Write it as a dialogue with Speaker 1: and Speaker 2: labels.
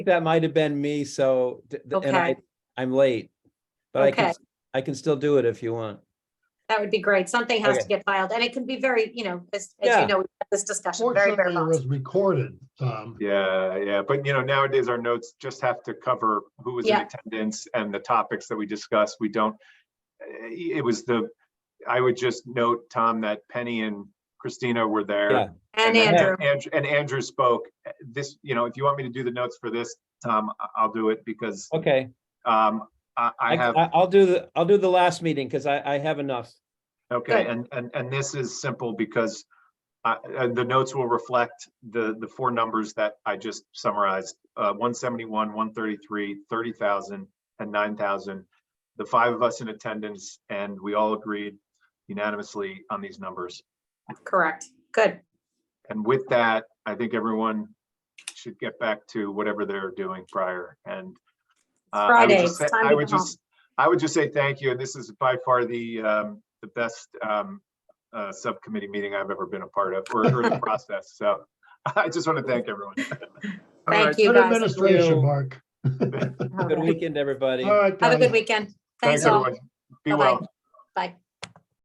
Speaker 1: that might have been me, so, th- th- and I,
Speaker 2: Okay.
Speaker 1: I'm late. But I can,
Speaker 2: Okay.
Speaker 1: s- I can still do it if you want.
Speaker 2: That would be great. Something has
Speaker 1: Okay.
Speaker 2: to get filed and it can be very, you know, as, as
Speaker 1: Yeah.
Speaker 2: you know, we've had this discussion, very, very
Speaker 3: Fortunately, it
Speaker 2: long.
Speaker 3: was recorded, um, Tom.
Speaker 4: Yeah, yeah, but you know, nowadays our notes just have to cover who was in
Speaker 2: Yeah.
Speaker 4: attendance and the topics that we discussed. We don't. eh, It was the, I would just note, Tom, that Penny and Christina were
Speaker 1: Yeah.
Speaker 4: there.
Speaker 2: And
Speaker 4: then
Speaker 2: Andrew,
Speaker 4: And and Andrew spoke. Eh, This, you know, if you want me to do the notes for this, Tom, I- I'll do it because
Speaker 1: Okay,
Speaker 4: um I I
Speaker 1: I,
Speaker 4: have,
Speaker 1: I- I'll do the, I'll do the last meeting because I, I have enough.
Speaker 4: okay,
Speaker 2: Good.
Speaker 4: and and and this is simple because uh, uh, the notes will reflect the, the four numbers that I just summarized, uh, one seventy-one, one thirty-three, thirty thousand, and nine thousand. The five of us in attendance, and we all agreed unanimously on these numbers.
Speaker 2: correct. Good.
Speaker 4: And with that, I think everyone should get back to whatever they're doing prior and. uh, I would
Speaker 2: Friday,
Speaker 4: just
Speaker 2: it's
Speaker 4: say-
Speaker 2: time
Speaker 4: I
Speaker 2: to
Speaker 4: would
Speaker 2: go home.
Speaker 4: just, I would just say thank you, and this is by far the, um, the best, um, uh, subcommittee meeting I've ever been a part of, or, or the process, so I just want to thank everyone.
Speaker 3: All right,
Speaker 2: Thank you,
Speaker 3: good
Speaker 2: guys.
Speaker 3: Administration, Mark.
Speaker 2: All
Speaker 1: Good
Speaker 2: right.
Speaker 1: weekend, everybody.
Speaker 3: All right,
Speaker 2: Have a
Speaker 3: guys.
Speaker 2: good weekend.
Speaker 4: Thanks,
Speaker 2: Thanks all.
Speaker 4: everyone. Be
Speaker 2: Bye-bye.
Speaker 4: well.
Speaker 2: Bye.